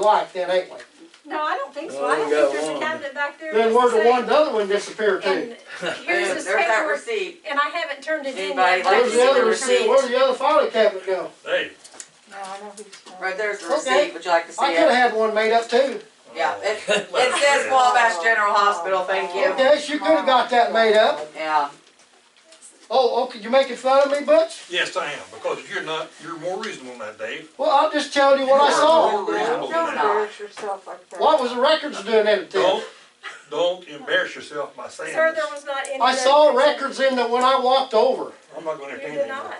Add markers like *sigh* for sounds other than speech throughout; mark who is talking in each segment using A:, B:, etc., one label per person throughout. A: like then, ain't we?
B: No, I don't think so.
C: Well,
B: I
C: we
B: don't
C: got
B: think there's a
C: one.
B: cabinet back there.
A: Then where
B: that's
A: the one,
B: the
A: the other one disappeared
B: same.
A: to?
B: And here's
D: There's
B: his
D: that
B: paperwork,
D: receipt.
B: and I haven't turned it in
D: Anybody
B: yet. but I
D: like
A: Where's
D: to
A: the
D: see
B: just-
A: other
D: the
A: receipt,
D: receipt.
A: where'd the other filing cabinet go?
E: Hey,
D: Right there's the
A: Okay.
D: receipt, would you like to see
A: I could've
D: it?
A: had one made up too.
D: Yeah, it, it says Wabash General Hospital, thank you.
A: Yes, you could've got that made up.
D: Yeah,
A: Oh, okay, you making fun of me, Butch?
E: yes, I am, because you're not, you're more reasonable than that, Dave.
A: Well, I'm just telling you what I
E: You are
A: saw.
E: More reasonable than
D: Don't
E: that.
D: embarrass
F: yourself like that.
A: What was the records doing in it then?
E: Don't, don't embarrass yourself by saying
B: Sir, there
E: this.
B: was not any.
A: I saw
B: records.
A: records in that when I walked over.
E: I'm not gonna
B: You
E: entertain
B: did
E: it
B: not.
E: anymore.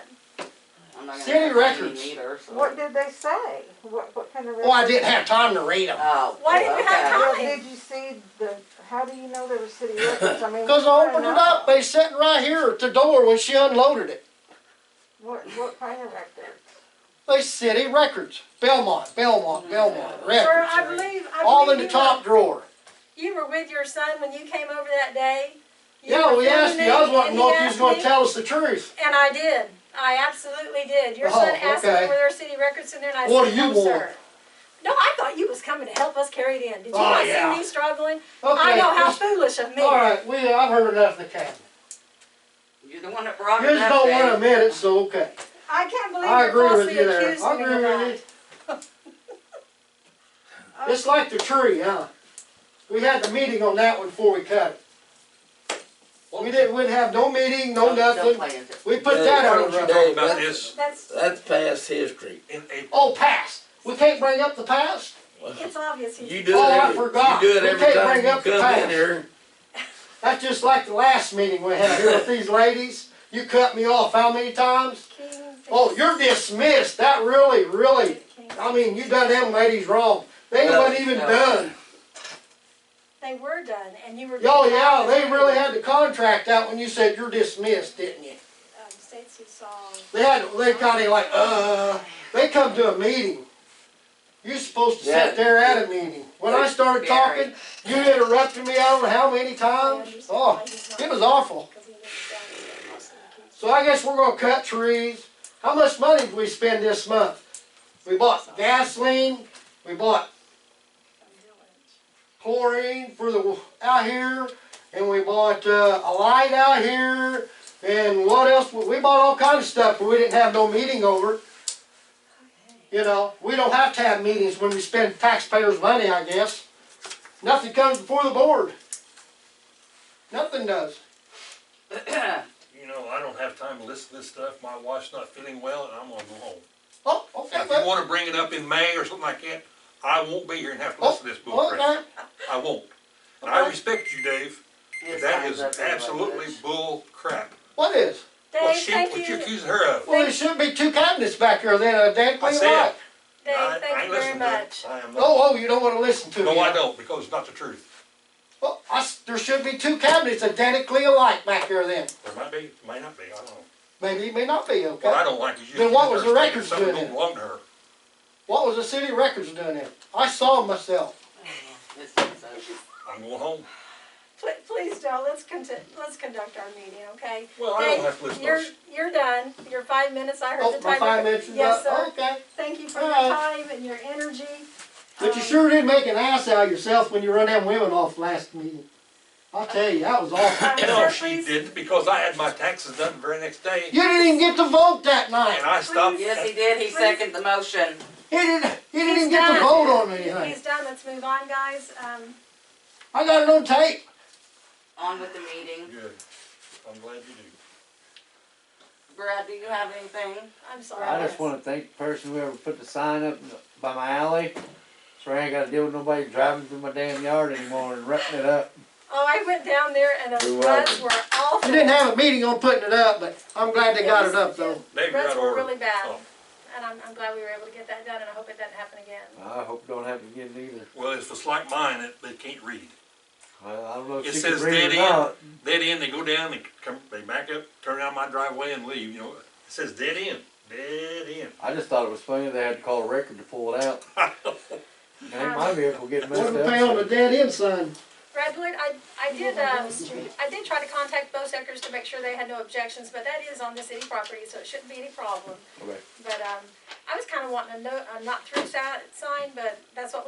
D: I'm not gonna.
A: City
D: have to
A: records.
D: see it either, so-
F: What did they say? What, what kind of?
A: Well, Oh, I didn't have time to read them.
D: Oh.
B: Why didn't you have
D: okay.
B: time?
F: Well, did you see the, how do you know there were city records? I mean.
A: Cause I
F: what
A: opened it
F: kind
A: up,
F: of-
A: they sitting right here at the door when she unloaded it.
F: What, what kind of records?
A: They city records, Belmont, Belmont, Belmont,
B: Sir, I
A: records.
B: believe, I believe.
A: All in the
B: you
A: top
B: were-
A: drawer.
B: You were with your son when you came over that day. You
A: Yeah,
B: were
A: we asked
B: filming
A: you, I was
B: me,
A: wanting to
B: and
A: know
B: he
A: if you was
B: asked
A: gonna
B: me,
A: tell us the truth.
B: And I did. I absolutely did. Your
A: Oh,
B: son asked me
A: okay.
B: were there city records in there and I
A: What
B: said,
A: do you
B: no, sir.
A: want?
B: No, I thought you was coming to help us carry it in. Did you
A: Oh,
B: not
A: yeah.
B: see me struggling? I
A: Okay,
B: know how
A: just-
B: foolish of me.
A: Alright, we, I've heard enough of the cabinet.
D: You're the one that brought
A: You
D: it
A: just
D: up,
A: don't wanna
D: Dave.
A: admit it, so okay.
B: I can't believe
A: I
B: you're
A: agree with
B: falsely
A: you there.
B: accused
A: I
B: me of
A: agree
B: that.
A: with you. *laughs* It's like the tree, huh? We had the meeting on that one before we cut it. We didn't, we didn't have no meeting, no
D: Don't- don't
A: nothing.
D: play into it.
A: We put that
E: Why
A: on
E: don't
A: the
E: you
A: record.
E: talk
C: Dave,
E: about
C: that's,
E: this
B: That's,
C: that's past history.
E: in April?
A: Oh, past. We can't bring up the past?
B: it's obvious he's.
C: You do
A: Oh,
C: it
A: I
C: every,
A: forgot.
C: you do it
A: We
C: every
A: can't
C: time
A: bring
C: you
A: up the
C: come in
A: past.
C: here.
A: That's just like the last meeting we had here with these ladies. You cut me off how many times?
B: King,
A: Oh, you're dismissed. That really, really,
B: King.
A: I mean, you done them ladies wrong. They wasn't even done.
B: They were done and you were.
A: Oh, yeah, they really had the contract out when you said you're dismissed, didn't you?
B: Um, Stacy saw,
A: They had, they kinda like, uh, they come to a meeting. You're supposed to sit there at a meeting. When I started talking, you interrupted me, I don't know how many times. Oh, it was awful.
B: cause he knew exactly what was in the
A: So I guess we're gonna cut trees. How much money did we spend this month? We bought gasoline, we bought
B: kitchen.
A: chlorine for the, out here, and we bought, uh, a light out here, and what else? We we bought all kinds of stuff, but we didn't have no meeting over. You know, we don't have to have meetings when we spend taxpayers' money, I guess. Nothing comes before the board. Nothing does.
E: You know, I don't have time to listen to this stuff, my wife's not feeling well, and I'm gonna go home.
A: Oh, okay,
E: If you
A: well,
E: wanna bring it up in May or something like that, I won't be here and have to listen
B: Oh,
E: to this bullcrap.
A: okay.
E: I won't. And I respect you, Dave, but
D: His
E: that
D: time's
E: is
D: up anyway,
E: absolutely
A: *laughs*
D: Butch.
E: bullcrap.
A: What is?
E: What
B: Dave,
E: she,
B: thank
E: what you
B: you, Dave,
E: accusing her of?
A: Well, there should be two cabinets back here then, a dead
E: I
A: clean
E: said,
A: lot.
E: it. I- I
B: thank
E: ain't
B: you very
E: listening to it.
B: much.
E: I am not.
A: Oh, oh, you don't wanna listen to me.
E: No, I don't, because it's not the truth.
A: Well, I s there should be two cabinets identically alike back here then.
E: There might be, may not be, I don't know.
A: Maybe, may not be, okay?
E: What I don't like is you.
A: Then what was the
E: accusing her of
A: records
E: something
A: doing
E: don't belong to her.
A: What was the city records doing there? I saw 'em myself.
D: This is over.
E: I'm going home.
B: Pl- Please, Joe, let's conti- let's conduct our meeting, okay?
E: Well, I don't
B: Dave,
E: have to listen to
B: You're,
E: this.
B: you're done, your five minutes, I heard
A: Oh,
B: the
A: my
B: timer.
A: five minutes is
B: Yes,
A: up,
B: sir,
A: okay.
B: thank you for your
A: All
B: time and your energy. Um,
A: But you sure did make an ass out of yourself when you run them women off last meeting. I'll tell you, that was awful.
B: Um,
E: No,
B: sir,
E: she
B: please,
E: didn't, because I had my taxes done the very next day,
A: You didn't even get to vote that night.
E: and I stopped.
D: Yes,
E: at-
D: he did, he seconded the motion.
A: He didn't, he didn't
B: He's
A: even get to
B: done.
A: vote on
B: he's
A: anything.
B: done, let's move on, guys, um,
A: I got it on tape.
D: On with the meeting.
E: Good. I'm glad you do.
D: Brad, do you have anything?
B: I'm sorry.
G: I just wanna thank the person who ever put the sign up by my alley, so I ain't gotta deal with nobody driving through my damn yard anymore and rutting it up.
B: Oh, I went down there and
C: You're
B: the ruts
C: welcome.
B: were awful.
A: You didn't have a meeting on putting it up, but I'm glad they got it up though.
E: Dave, you're out
B: Ruts
E: of
B: were
E: order.
B: really bad,
E: Oh,
B: and I'm, I'm glad we were able to get that done, and I hope it doesn't happen again.
G: I hope it don't happen again either.
E: Well, if it's like mine, it- they can't read.
G: Well, I don't know if
E: It
G: she can
E: says
G: read
E: dead
G: it or
E: end,
G: not.
E: dead end, they go down, they come, they back up, turn down my driveway and leave, you know, it says dead end, dead end.
G: I just thought it was funny they had to call a record to pull it
E: *laughs*
G: out. Ain't my vehicle getting
A: What
G: messed
A: did we pay on the
G: up.
A: dead end sign?
B: Redwood, I, I did, um, I did try to contact both sectors to make sure they had no objections, but that is on the city property, so it shouldn't be any problem.
G: Okay.
B: But, um, I was kinda wanting a no, a not through si- sign, but that's what